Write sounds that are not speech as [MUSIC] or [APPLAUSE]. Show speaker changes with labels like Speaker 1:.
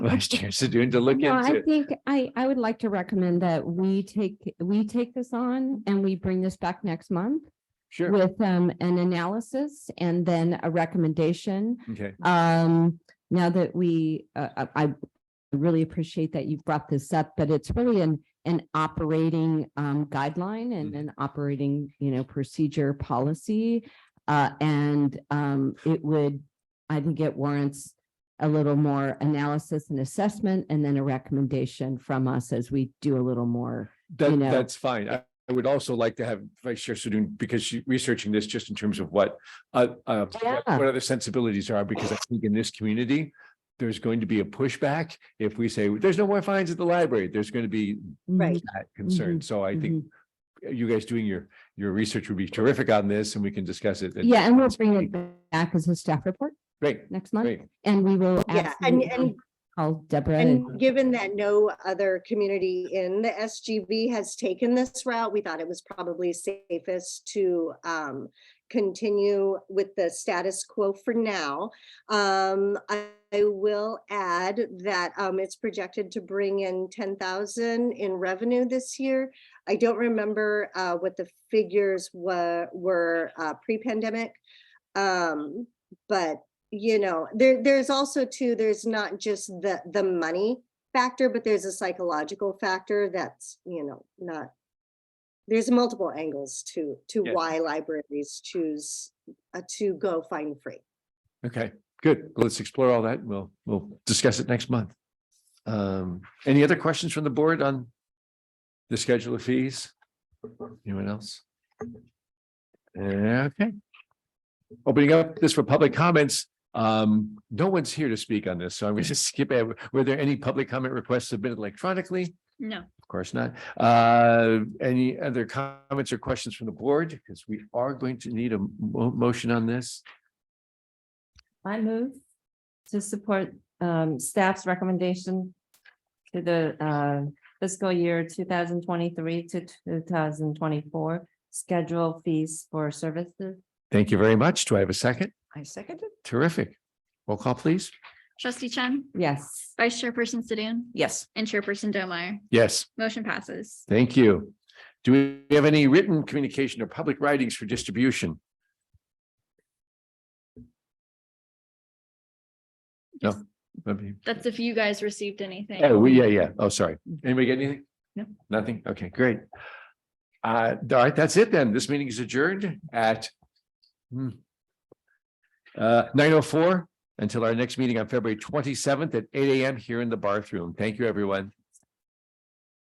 Speaker 1: [LAUGHS] vice chair Sadoun to look
Speaker 2: No, I
Speaker 1: into.
Speaker 2: think I, I would like to recommend that we take, we take this on and we bring this back next month
Speaker 1: Sure.
Speaker 2: with um, an analysis and then a recommendation.
Speaker 1: Okay.
Speaker 2: Um, now that we, uh, I- I really appreciate that you brought this up, but it's really an, an operating um, guideline and
Speaker 1: Mhm.
Speaker 2: an operating, you know, procedure policy. Uh, and um, it would, I think it warrants a little more analysis and assessment and then a recommendation from us as we do a little more.
Speaker 1: That,
Speaker 2: know.
Speaker 1: that's fine. I, I would also like to have Vice Chair Sadoun, because she's researching this just in terms of what, uh, uh, what-
Speaker 2: Yeah.
Speaker 1: what other sensibilities are, because I think in this community, there's going to be a pushback if we say, there's no more fines at the library. There's going to be
Speaker 3: Right.
Speaker 1: that concern.
Speaker 2: Mm-hmm.
Speaker 1: So I think you guys doing your, your research would be terrific on this and we can discuss it. at-
Speaker 2: Yeah, and we'll bring it back as a staff report
Speaker 1: Great,
Speaker 2: next month
Speaker 1: great.
Speaker 2: and we will.
Speaker 3: Yeah, and, and,
Speaker 2: absolutely Call Deborah. and-
Speaker 3: and given that no other community in the SGB has taken this route, we thought it was probably safest to um continue with the status quo for now. Um, I I will add that um it's projected to bring in ten thousand in revenue this year. I don't remember uh what the figures were were uh pre-pandemic. Um, but you know, there, there's also too, there's not just the, the money factor, but there's a psychological factor that's, you know, not. There's multiple angles to, to
Speaker 1: Yeah.
Speaker 3: why libraries choose uh, to go find free.
Speaker 1: Okay, good. Well, Let's explore all that. We'll, we'll discuss it next month. Um, any other questions from the board on the schedule of fees? Anyone else? Okay. Opening up this for public comments. Um, no one's here to speak on this, so [LAUGHS] I'm going to skip. it. Were there any public comment requests submitted electronically?
Speaker 4: No.
Speaker 1: Of course not. Uh, any other comments or questions from the board? Because we are going to need a mo- motion on this.
Speaker 5: I move to support um staff's recommendation to the uh fiscal year two thousand twenty-three to two thousand twenty-four schedule fees for services.
Speaker 1: Thank you very much. Do I have a second?
Speaker 5: I second it.
Speaker 1: Terrific. Roll call, please.
Speaker 4: Trustee Chen,
Speaker 5: Yes.
Speaker 4: Vice Chairperson Sidoun,
Speaker 5: Yes.
Speaker 4: and Chairperson Domeyer.
Speaker 1: Yes,
Speaker 4: Motion passes.
Speaker 1: thank you. Do we have any written communication or public writings for distribution? No. Let me-
Speaker 4: That's if you guys received anything.
Speaker 1: Oh, we, yeah, yeah. Oh, sorry. Anybody get anything?
Speaker 4: No.
Speaker 1: Nothing? Okay, great. Uh, all right, that's it then. This meeting is adjourned at hmm, uh, nine oh four until our next meeting on February twenty-seventh at eight AM here in the bathroom. Thank you, everyone.